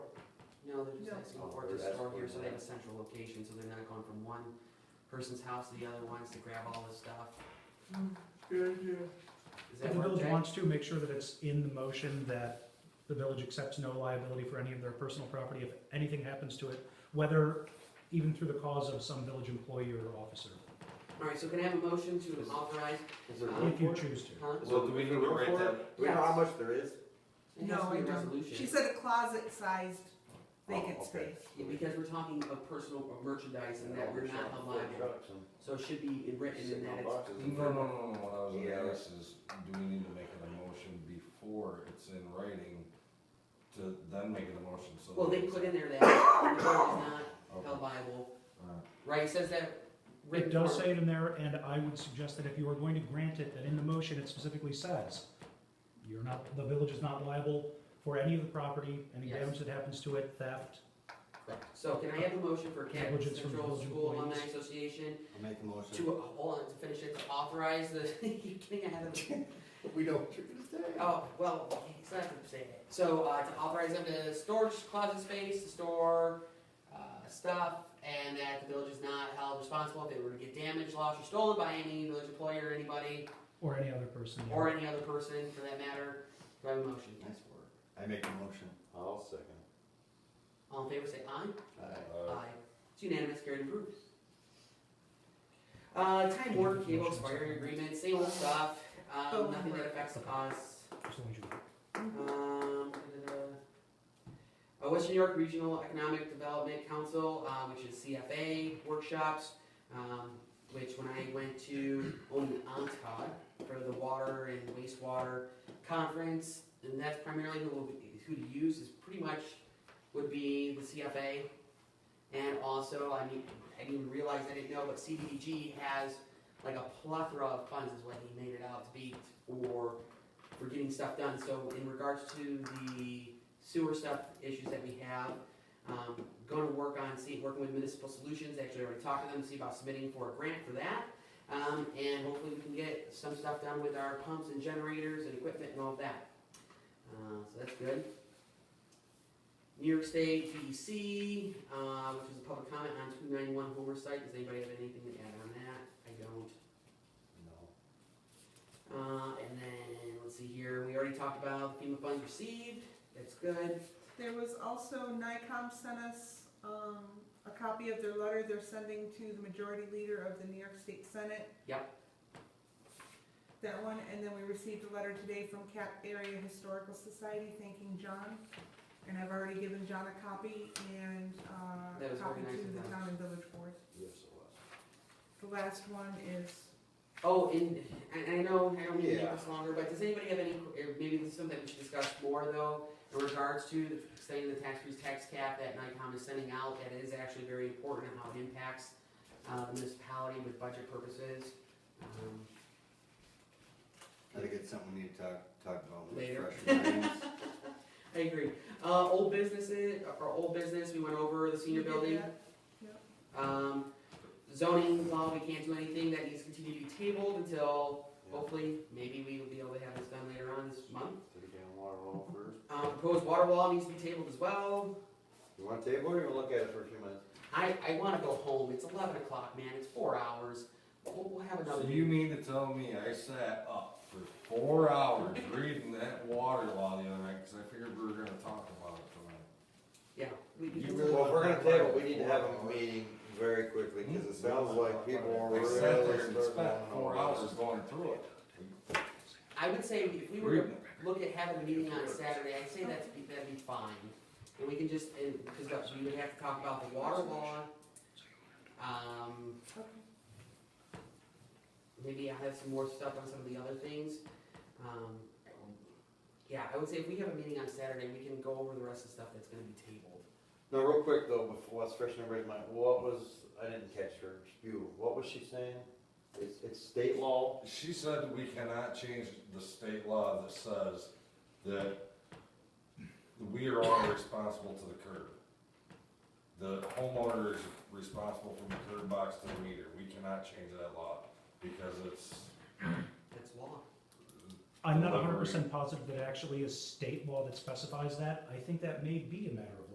know, they're just like Singapore, No. just Oh, That's store here, so they have a cool. central location, so they're not going from one person's house to the other ones to grab all this stuff. Good idea. Does If that the work, village Jay? wants to, make sure that it's in the motion that the village accepts no liability for any of their personal property if anything happens to it, whether even through the cause of some village employee or officer, All right, so can I have a motion to authorize, Is there Uh, room if for you it? choose to. huh? So do we need to Room write for it? that? Do we know Yes. how much there is? It has No, to be I a don't. resolution. She said a closet-sized vacant Oh, okay. space. Yeah, Because we're talking of personal or merchandise and that we're not liable, so it should be written in that it's. No, no, no, no, what I was Yeah. gonna ask is, do we need to make an emotion before it's in writing to then make an emotion, so. Well, that they it's- put in there that the village is not Okay, held liable, alright. right, it says that written. It does form. say it in there, and I would suggest that if you are going to grant it, that in the motion it specifically says, you're not, the village is not liable for any of the property, any Yes. damage that happens to it, theft. Correct. So can I have a motion for Canton Negligence from Central village School Alumni employees. Association I'll make the motion. to, hold on, to finish it, to authorize the, you're getting ahead of me. We know what you're gonna say. Oh, well, okay, it's not gonna say it. So, uh, to authorize them to storage closet space, to store, uh, stuff, and that the village is not held responsible if they were to get damaged, lost, or stolen by any village employee or anybody, Or any other person. or any other person for that matter. Do I have a motion? Nice work. I make the motion. I'll second. All in favor, say aye. Uh, Aye. It's unanimous, carried and approved. Uh, Time Warner Cable expiring agreement, same old stuff, um, nothing that affects us. As long as you- Um, uh, West New York Regional Economic Development Council, uh, which is CFA workshops, um, which when I went to Onondaga for the water and wastewater conference, and that's primarily who will be, who to use is pretty much would be the CFA. And also, I mean, I didn't even realize, I didn't know, but CDBG has like a plethora of funds is what he made it out to be for for getting stuff done. So in regards to the sewer stuff issues that we have, um, going to work on, see, working with Municipal Solutions, actually already talked to them, see about submitting for a grant for that. Um, and hopefully we can get some stuff done with our pumps and generators and equipment and all of that. Uh, so that's good. New York State DEC, uh, which is a public comment on two ninety-one Homer site. Does anybody have anything to add on that? I don't. No. Uh, and then, let's see here, we already talked about FEMA funds received, that's good. There was also, NICOM sent us, um, a copy of their letter they're sending to the majority leader of the New York State Senate. Yep. That one, and then we received a letter today from Cap Area Historical Society thanking John. And I've already given John a copy and, uh, That was copy organized to in the that. town and village board. Yes, it was. The last one is Oh, and, and I know, I don't mean to make Yeah. this longer, but does anybody have any, or maybe this is something we should discuss more though, in regards to the extending the tax freeze tax cap that NICOM is sending out, that is actually very important and how it impacts, uh, the municipality with budget purposes. Um, I think it's something we need to talk, talk about with Later. fresh minds. I agree. Uh, old businesses, or old business, we went over the senior You did building. that? Yep. Um, zoning law, we can't do anything, that needs to continue to be tabled until, Yeah. hopefully, maybe we will be able to have this done later on this month. Thirty gallon water roll first. Um, proposed water law needs to be tabled as well. You want a table or you wanna look at it for a few minutes? I, I wanna go home, it's eleven o'clock, man, it's four hours, we'll, we'll have another. So you mean to tell me I sat up for four hours reading that water law the other night, cause I figured we were gonna talk about it tonight? Yeah. we- we You can- really- Well, if we're gonna table, we need to have a meeting very quickly, cause it sounds like people are I really sat there starting and spent to. four hours going through it. I would say if we were to Reading. look at having a meeting on Saturday, I'd say that's, be- that'd be fine. And we can just, and, cause we would have to talk about the water law. Um, Okay. maybe I have some more stuff on some of the other things. Um, yeah, I would say if we have a meeting on Saturday, we can go over the rest of the stuff that's gonna be tabled. No, real quick though, before, let's freshen everybody's mind, what was, I didn't catch her spew, what was she saying? It's, it's state law, She said we cannot change the state law that says that we are all responsible to the curb. The homeowner is responsible from the curb box to the meter. We cannot change that law because it's, That's law. I'm not Elaborate. hundred percent positive that it actually is state law that specifies that, I think that may be a matter of